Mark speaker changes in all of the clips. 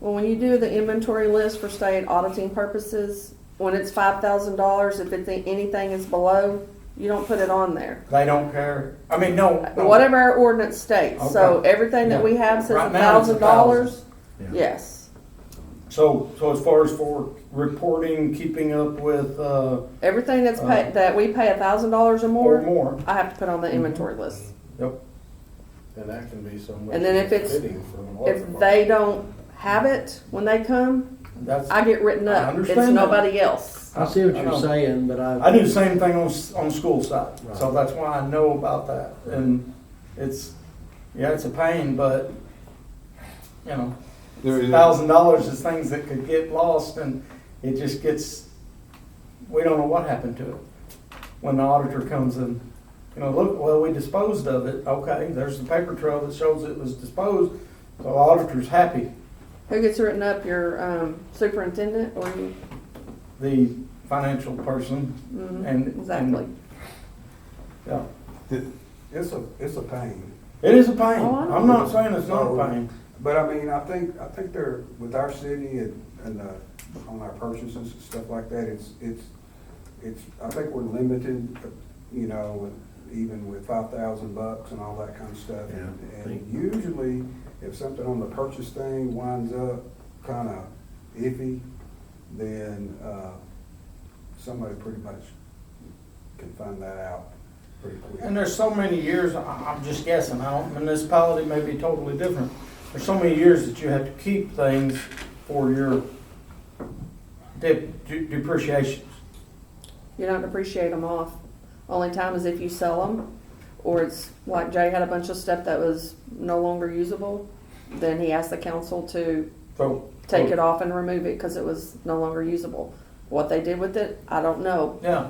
Speaker 1: Well, when you do the inventory list for state auditing purposes, when it's five thousand dollars, if it's anything is below, you don't put it on there.
Speaker 2: They don't care. I mean, no. no.
Speaker 1: Whatever our ordinance states, so everything that we have says
Speaker 2: Right
Speaker 1: a
Speaker 2: now, it's
Speaker 1: thousand dollars,
Speaker 3: Yeah.
Speaker 1: yes.
Speaker 2: So, so as far as for reporting, keeping up with, uh,
Speaker 1: Everything that's
Speaker 2: Uh,
Speaker 1: paid, that we pay a thousand dollars or
Speaker 2: or
Speaker 1: more,
Speaker 2: more, Mm-hmm.
Speaker 1: I have to put on the inventory list.
Speaker 2: yep,
Speaker 4: And that can be somewhere.
Speaker 1: And then if it's-
Speaker 4: fitting for an audit
Speaker 1: If
Speaker 4: department.
Speaker 1: they don't have it when they come,
Speaker 2: that's,
Speaker 1: I get written
Speaker 2: I
Speaker 1: up. It's
Speaker 2: understand that.
Speaker 1: nobody else.
Speaker 3: I see what
Speaker 2: I
Speaker 3: you're
Speaker 2: know.
Speaker 3: saying, but I.
Speaker 2: I do the same thing on, s- on school side. So
Speaker 3: Right.
Speaker 2: that's why I know about that. And it's, yeah, it's a pain, but, you know,
Speaker 5: There is-
Speaker 2: thousand dollars is things that could get lost and it just gets, we don't know what happened to it. When the auditor comes in, you know, look, well, we disposed of it. Okay, there's the paper trail that shows it was disposed. So auditor's happy.
Speaker 1: Who gets written up? Your, um, superintendent or you?
Speaker 2: the financial person
Speaker 1: Mhm,
Speaker 2: and. and-
Speaker 1: Exactly.
Speaker 2: Yeah,
Speaker 6: It's a, it's a pain,
Speaker 2: it is a pain.
Speaker 1: Oh, I know.
Speaker 2: I'm not saying it's not
Speaker 5: Oh.
Speaker 2: a pain.
Speaker 6: but I mean, I think, I think they're, with our city and, and, uh, on our purchases and stuff like that, it's, it's, it's, I think we're limited, you know, with- even with five thousand bucks and all that kind of stuff.
Speaker 3: Yeah,
Speaker 6: And-
Speaker 3: I think-
Speaker 6: And usually, if something on the purchase thing winds up kinda iffy, then, uh, somebody pretty much can find that out pretty quick.
Speaker 2: And there's so many years, I- I'm just guessing, I don't, municipality may be totally different. There's so many years that you have to keep things for your de- de- depreciations.
Speaker 1: You don't depreciate them off. Only time is if you sell them, or it's like Jay had a bunch of stuff that was no longer usable. Then he asked the council to
Speaker 2: So.
Speaker 1: take it off and remove it because it was no longer usable. What they did with it, I don't know.
Speaker 2: Yeah,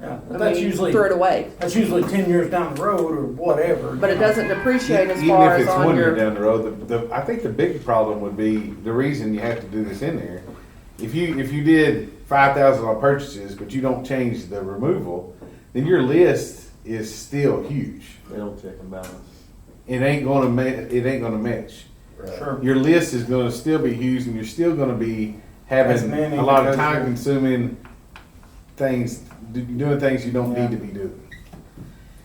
Speaker 2: yeah, but
Speaker 1: I
Speaker 2: that's
Speaker 1: mean,
Speaker 2: usually,
Speaker 1: threw it away,
Speaker 2: that's usually ten years down the road or whatever.
Speaker 1: but it
Speaker 2: you know.
Speaker 1: doesn't depreciate as
Speaker 5: E- Even
Speaker 1: far
Speaker 5: if
Speaker 1: as
Speaker 5: it's
Speaker 1: on
Speaker 5: one year
Speaker 1: your.
Speaker 5: down the road, the, the, I think the big problem would be, the reason you have to do this in there, if you, if you did five thousand on purchases, but you don't change the removal, then your list is still huge.
Speaker 7: They don't check and balance.
Speaker 5: It ain't gonna ma, it ain't gonna match.
Speaker 2: Sure.
Speaker 5: Your list is gonna still be huge and you're still gonna be
Speaker 2: As
Speaker 5: having
Speaker 2: many
Speaker 5: a lot of
Speaker 2: because
Speaker 5: time
Speaker 2: you're-
Speaker 5: consuming things, do- doing things you don't need to
Speaker 2: Yeah.
Speaker 5: be doing.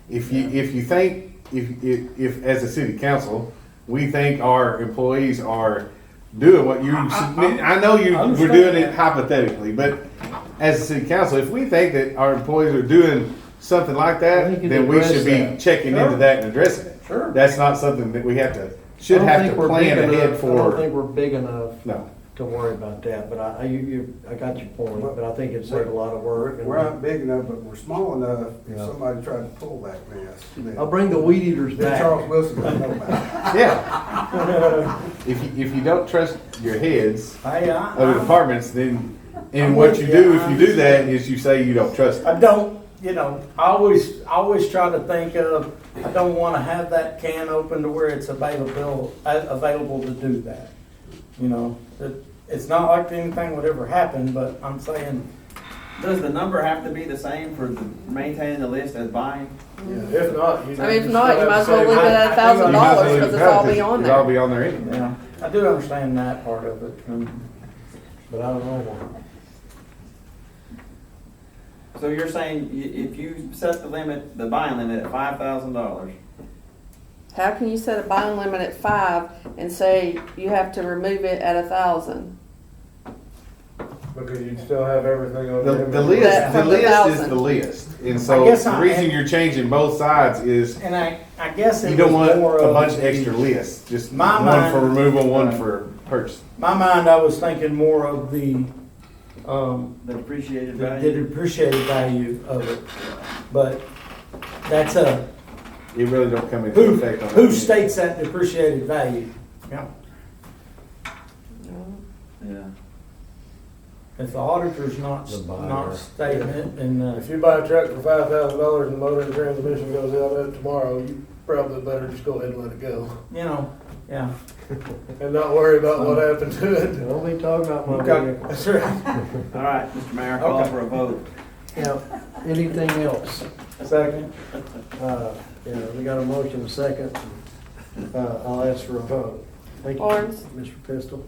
Speaker 5: If you, if you think, if, if, if, as a city council, we think our employees are doing what you, submit- I know you,
Speaker 2: I
Speaker 5: we're
Speaker 2: understand
Speaker 5: doing it
Speaker 2: that.
Speaker 5: hypothetically, but as a city council, if we think that our employees are doing something like
Speaker 3: I
Speaker 5: that,
Speaker 3: think you
Speaker 5: then we
Speaker 3: address
Speaker 5: should be
Speaker 3: that.
Speaker 5: checking into
Speaker 2: Sure.
Speaker 5: that and addressing it.
Speaker 2: Sure.
Speaker 5: That's not something that we have to,
Speaker 3: I
Speaker 5: should
Speaker 3: don't
Speaker 5: have
Speaker 3: think
Speaker 5: to
Speaker 3: we're
Speaker 5: plan
Speaker 3: big
Speaker 5: ahead
Speaker 3: enough- I don't
Speaker 5: for,
Speaker 3: think we're big enough
Speaker 5: no.
Speaker 3: to worry about that, but I, I- you, you, I got your point, but I think it'd save a lot of work.
Speaker 6: We're,
Speaker 3: and-
Speaker 6: we're not big enough, but we're small enough, if
Speaker 3: Yeah.
Speaker 6: somebody tried to pull that mess, then,
Speaker 3: I'll bring the weed eaters
Speaker 6: then Charles
Speaker 3: back.
Speaker 6: Wilson would know about
Speaker 5: Yeah. If you, if you don't trust your heads
Speaker 2: Hey,
Speaker 1: Uh-huh.
Speaker 2: I-
Speaker 5: of the
Speaker 2: I-
Speaker 5: departments, then, and
Speaker 2: I'm
Speaker 5: what
Speaker 2: with
Speaker 5: you
Speaker 2: you.
Speaker 5: do, if
Speaker 2: I
Speaker 5: you do that, is you say you don't trust
Speaker 2: I don't, you know, I always, I always try to think of, I don't wanna have that can open to where it's available, a- available to do that. You know, it, it's not like anything would ever happen, but I'm saying,
Speaker 7: Does the number have to be the same for the, maintaining the list as buying?
Speaker 4: Yeah, If not, you.
Speaker 1: I mean, if not, you might as well leave it at a
Speaker 5: You
Speaker 1: thousand
Speaker 5: might as well
Speaker 1: dollars
Speaker 5: leave
Speaker 1: because
Speaker 5: it
Speaker 1: it's all
Speaker 5: out,
Speaker 1: be on
Speaker 5: It's all
Speaker 1: there.
Speaker 5: be on there anyway.
Speaker 2: yeah, I do understand that part of it. um, and-
Speaker 3: But I don't know.
Speaker 7: So you're saying i- if you set the limit, the buying limit at five thousand dollars,
Speaker 1: How can you set a buying limit at five and say you have to remove it at a thousand?
Speaker 4: Because you'd still have everything on.
Speaker 5: The, the
Speaker 4: inventory.
Speaker 5: list, the
Speaker 1: from the
Speaker 5: list is
Speaker 1: thousand.
Speaker 5: the list, and
Speaker 2: I
Speaker 5: so
Speaker 2: guess I-
Speaker 5: the reason you're changing both sides is
Speaker 2: And I, I guess
Speaker 5: you
Speaker 2: it was
Speaker 5: don't want
Speaker 2: more of.
Speaker 5: a bunch of
Speaker 2: the-
Speaker 5: extra lists, just
Speaker 2: My
Speaker 5: one for
Speaker 2: mind-
Speaker 5: removal, one
Speaker 2: Right.
Speaker 5: for purchase.
Speaker 2: My mind, I was thinking more of the, um,
Speaker 7: the depreciated
Speaker 2: the
Speaker 7: value?
Speaker 2: the depreciated value of it. But that's a,
Speaker 5: It really don't come into
Speaker 2: who,
Speaker 5: effect on.
Speaker 2: who
Speaker 5: that.
Speaker 2: states that depreciated value? Yeah.
Speaker 7: Yeah.
Speaker 2: If the auditor's not,
Speaker 3: The buyer.
Speaker 2: not stating it, then, uh,
Speaker 4: If you buy a truck for five thousand dollars and the motor and transmission goes out of it tomorrow, you probably better just go ahead and let it go.
Speaker 2: you know, yeah.
Speaker 4: And not worry about what happened to it.
Speaker 3: Don't be talking about my
Speaker 2: Okay,
Speaker 3: vehicle.
Speaker 2: that's right.
Speaker 7: All right, Mr. Mayor, call
Speaker 2: Okay.
Speaker 7: for a vote.
Speaker 3: Yeah, anything else?
Speaker 2: Second.
Speaker 3: Uh, yeah, we got a motion second. Uh, I'll ask for a vote. Thank you,
Speaker 1: Barnes?
Speaker 3: Mr. Pistol.